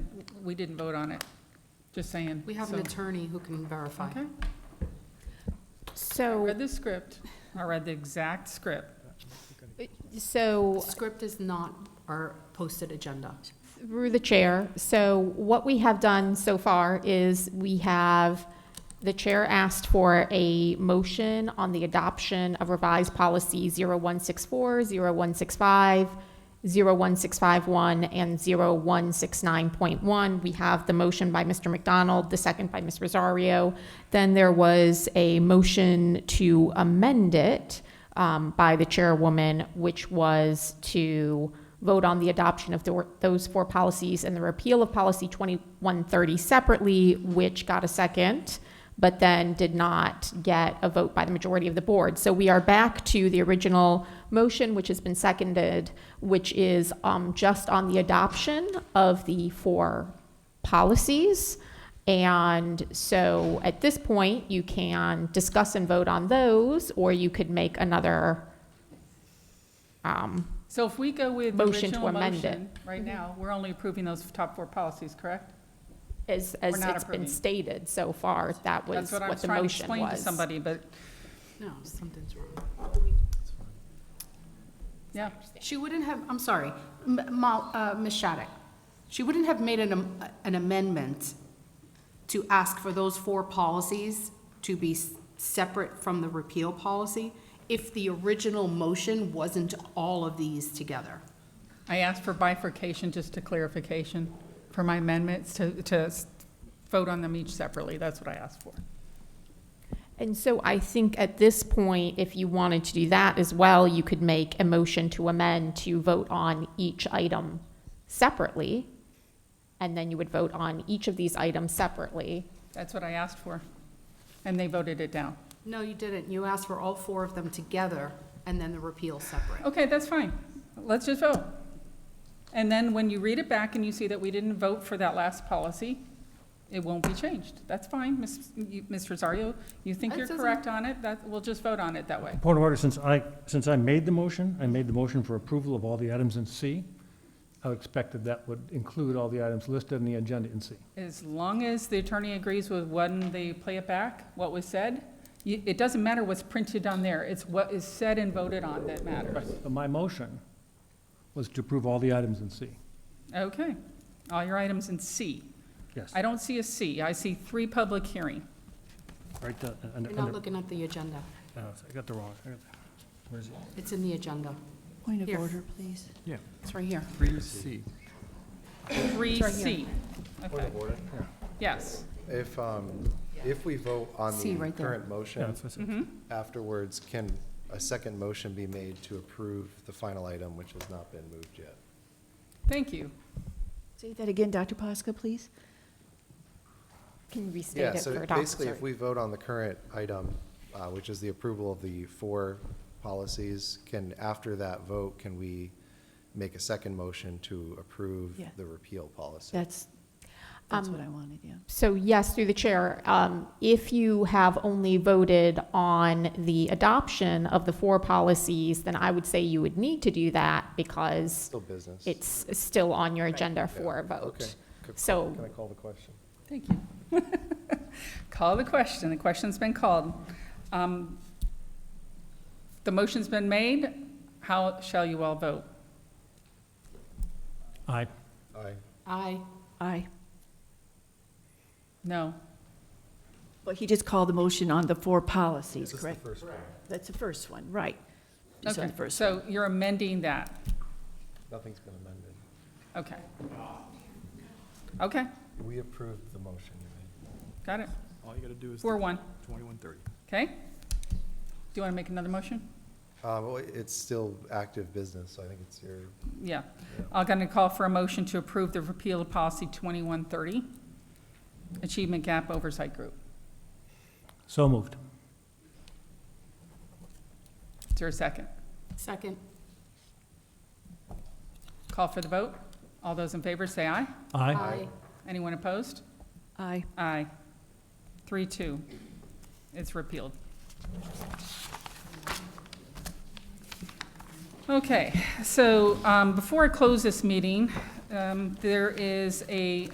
we didn't vote on it, just saying. We have an so- attorney who can verify. Okay, I So, read the script, I read the exact script. The uh, so script is not our posted agenda. through the chair, so what we have done so far is we have, the chair asked for a motion on the adoption of revised policy 0164, 0165, 01651, and 0169.1. We have the motion by Mr. McDonald, the second by Ms. Rosario. Then there was a motion to amend it um, by the chairwoman, which was to vote on the adoption of the- those four policies and the repeal of policy 2130 separately, which got a second, but then did not get a vote by the majority of the board. So we are back to the original motion, which has been seconded, which is um, just on the adoption of the four policies. And so at this point, you can discuss and vote on those, or you could make another, um, So if we go with the Motion to original amend it. motion, Mm-hmm. right now, we're only approving those top four policies, correct? as, as not it's been approving. stated so far, that was That's what I what was the trying to motion explain to was. somebody, but, No, something's wrong. yeah. She wouldn't have, I'm sorry, M- Mal- uh, Ms. Shattuck, she wouldn't have made an am- an amendment to ask for those four policies to be s- separate from the repeal policy if the original motion wasn't all of these together. I asked for bifurcation, just to clarification, for my amendments to, to s- vote on them each separately. That's what I asked for. And so I think at this point, if you wanted to do that as well, you could make a motion to amend to vote on each item separately. And then you would vote on each of these items separately. That's what I asked for. And they voted it down. No, you didn't. You asked for all four of them together and then the repeal separate. Okay, that's fine. Let's just vote. And then when you read it back and you see that we didn't vote for that last policy, it won't be changed. That's fine, Ms. you- Ms. Rosario. You think That you're doesn't- correct on it, that, we'll just vote on it that way. Point of order, since I, since I made the motion, I made the motion for approval of all the items in C. I expected that would include all the items listed in the agenda in C. As long as the attorney agrees with when they play it back, what was said, you- it doesn't matter what's printed on there, it's what is said and voted on that matters. But my motion was to approve all the items in C. Okay, all your items in C. Yes, I don't see a C, I see three public hearing. right, uh, under, You're not under, looking at the agenda. uh, I got the wrong, I got the- where is it? It's in the agenda. Point of Here. order, please. Yeah. It's right here. Three C. Three It's right C. here. Okay. Yes, If, um, if we vote on See, the right there. current Yeah, motion that's what I said. afterwards, can a second motion be made to approve the final item, which has not been moved yet? thank you. Say that again, Dr. Posca, please. Can you restate Yeah, it for so adoption? basically, if we vote on the current item, uh, which is the approval of the four policies, can, after that vote, can we make a second motion to approve Yeah. the repeal policy? That's, that's Um, what I wanted, yeah. So yes, through the chair, um, if you have only voted on the adoption of the four policies, then I would say you would need to do that because Still business. it's still on your agenda Yeah, for a okay. vote. Could- So- Can I call the question? Thank you. Call the question, the question's been called. Um, The motion's been made, how shall you all vote? Aye. Aye. Aye. Aye. No, But he just called the motion on the four policies, This is the correct? first one. That's the first one, right. Just on okay, the first one. so you're amending that, Nothing's been amended. okay. Okay, We approved the motion you made. got it, All you gotta do is four one, twenty-one thirty. okay? Do you want to make another motion? Uh, well, it's still active business, so I think it's your, Yeah, I'm going to call for a motion to approve the repeal of policy 2130, Achievement Gap Oversight Group. So moved. Is there a second? Second. Call for the vote, all those in favor say aye. Aye. Aye. Anyone opposed? Aye. Aye. Three, two. It's repealed. Okay, so um, before I close this meeting, um, there is a